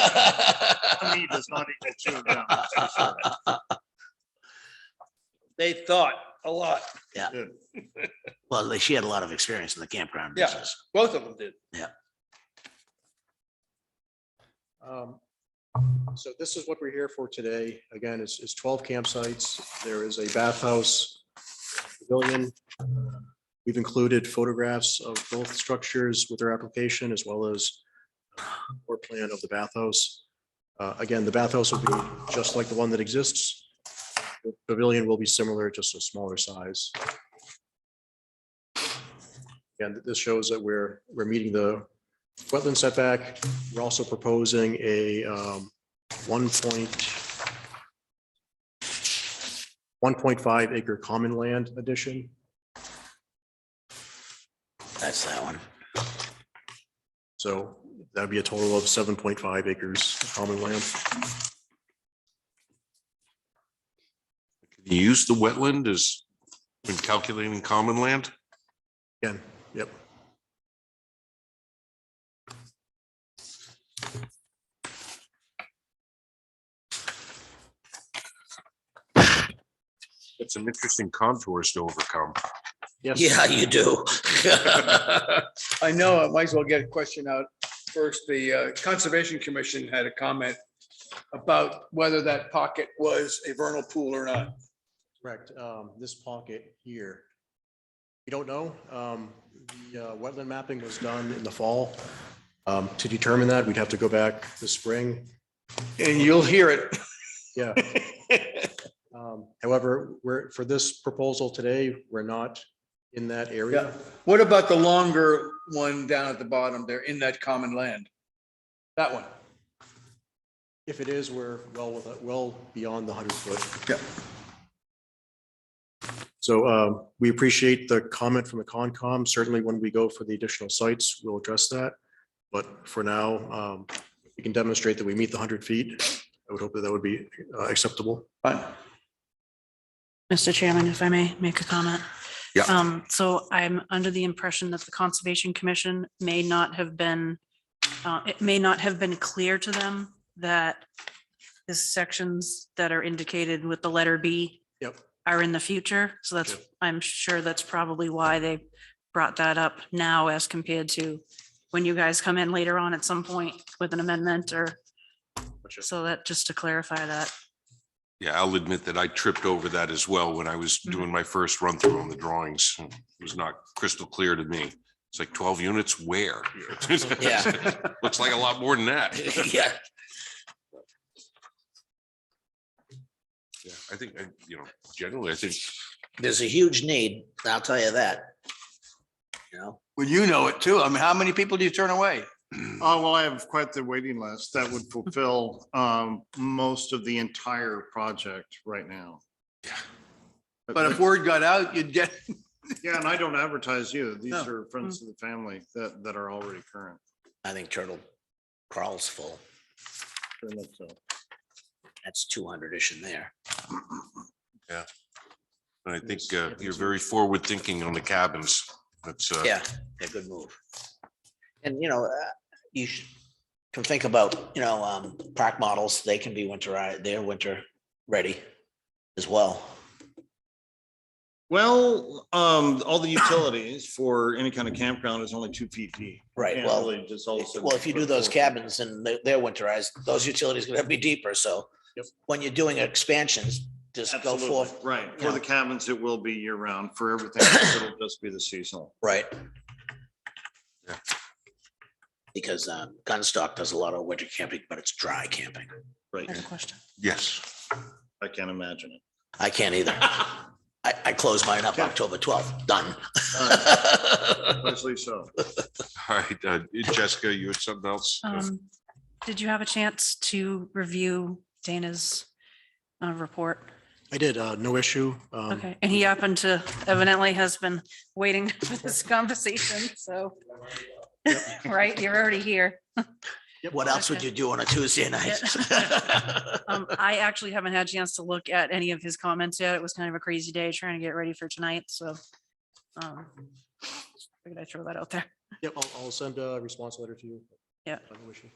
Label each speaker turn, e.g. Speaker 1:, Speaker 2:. Speaker 1: he does not even chew gum.
Speaker 2: Uh,
Speaker 1: that's for sure.
Speaker 3: They thought a lot.
Speaker 2: Well, they- she had a lot of experience in the campground
Speaker 3: Yeah.
Speaker 2: business.
Speaker 3: Both of them did.
Speaker 4: Um, So this is what we're here for today. Again, it's, it's twelve campsites. There is a bathhouse pavilion. We've included photographs of both structures with their application as well as floor plan of the bathhouse. Uh, Again, the bathhouse will be just like the one that exists. The Pavilion will be similar, just a smaller size. And this shows that we're, we're meeting the wetland setback, we're also proposing a um, one point one point five acre common land addition.
Speaker 2: That's that one.
Speaker 4: So that'd be a total of seven point five acres of common land.
Speaker 5: Can you Use the wetland as when calculating common land?
Speaker 4: Again, yep.
Speaker 5: That's some interesting contours to overcome.
Speaker 4: Yes.
Speaker 2: Yeah, you do.
Speaker 6: I know, I might as well get a question out first. The uh, Conservation Commission had a comment about whether that pocket was a vernal pool or not.
Speaker 4: Correct. Um, This pocket here. We don't know. Um, The uh, wetland mapping was done in the fall. Um, To determine that, we'd have to go back this spring.
Speaker 6: And you'll hear it.
Speaker 4: Yeah. Um, However, we're, for this proposal today, we're not in that area.
Speaker 6: What about the longer one down at the bottom there in that common land? That one.
Speaker 4: If it is, we're well, with- well beyond the hundred foot.
Speaker 6: Yeah.
Speaker 4: So um, we appreciate the comment from the Concom. Certainly when we go for the additional sites, we'll address that. But for now, um, we can demonstrate that we meet the hundred feet. I would hope that that would be uh, acceptable.
Speaker 6: Fine.
Speaker 7: Mr. Chairman, if I may make a comment.
Speaker 5: Yeah.
Speaker 7: Um, so I'm under the impression that the Conservation Commission may not have been, uh, it may not have been clear to them that the sections that are indicated with the letter B
Speaker 4: Yep.
Speaker 7: are in the future. So that's,
Speaker 4: Yep.
Speaker 7: I'm sure that's probably why they brought that up now as compared to when you guys come in later on at some point with an amendment or,
Speaker 4: Gotcha.
Speaker 7: so that, just to clarify that.
Speaker 5: Yeah, I'll admit that I tripped over that as well when I was doing my first run through on the drawings. It was not crystal clear to me. It's like twelve units where?
Speaker 2: Yeah.
Speaker 5: Looks like a lot more than that.
Speaker 2: Yeah,
Speaker 5: Yeah, I think, I- you know, generally, I think
Speaker 2: there's a huge need. I'll tell you that. You know,
Speaker 6: Well, you know it too. I mean, how many people do you turn away?
Speaker 1: Oh, well, I have quite the waiting list that would fulfill um, most of the entire project right now. Yeah.
Speaker 6: But if word got out, you'd get,
Speaker 1: Yeah, and I don't advertise you. These
Speaker 7: Oh.
Speaker 6: No.
Speaker 1: are
Speaker 7: Mm.
Speaker 1: friends of the family that, that are already current.
Speaker 2: I think Turtle Crawl's full.
Speaker 1: Pretty much so.
Speaker 2: That's two hundred-ish in there.
Speaker 5: And I think uh, you're very forward thinking on the cabins. That's, uh,
Speaker 2: Yeah, a good move. And, you know, uh, you should can think about, you know, um, park models, they can be winterized, they're winter ready as well.
Speaker 1: Well, um, all the utilities for any kind of campground is only two feet deep.
Speaker 2: Right,
Speaker 1: Can't
Speaker 2: well,
Speaker 1: really just all of a sudden
Speaker 2: well, if you do
Speaker 1: put
Speaker 2: those
Speaker 1: four-
Speaker 2: cabins and they're, they're winterized, those utilities gonna be deeper, so
Speaker 4: Yep.
Speaker 2: when you're doing expansions, just go
Speaker 1: Absolutely,
Speaker 2: forth,
Speaker 1: Right,
Speaker 2: Yeah.
Speaker 1: for the cabins, it will be year round. For everything, else, it'll just be the seasonal.
Speaker 2: right?
Speaker 5: Yeah.
Speaker 2: Because, um, Gunstock does a lot of winter camping, but it's dry camping.
Speaker 1: Right,
Speaker 7: I have a question.
Speaker 5: yes.
Speaker 1: I can't imagine it.
Speaker 2: I can't either. I, I close mine up
Speaker 1: Okay.
Speaker 2: October twelfth, done.
Speaker 1: Especially so.
Speaker 5: All right, uh, Jessica, you had something else?
Speaker 7: Um, did you have a chance to review Dana's uh, report?
Speaker 4: I did, uh, no issue. Um,
Speaker 7: Okay, and he happened to evidently has been waiting for this conversation, so. Right, you're already here.
Speaker 2: What else would
Speaker 7: Okay.
Speaker 2: you do on a Tuesday night?
Speaker 7: Um, I actually haven't had a chance to look at any of his comments yet. It was kind of a crazy day trying to get ready for tonight, so. um Figured I'd throw that out there.
Speaker 4: Yep, I'll, I'll send a response letter to you. Uh,
Speaker 7: Yeah.
Speaker 4: No issue.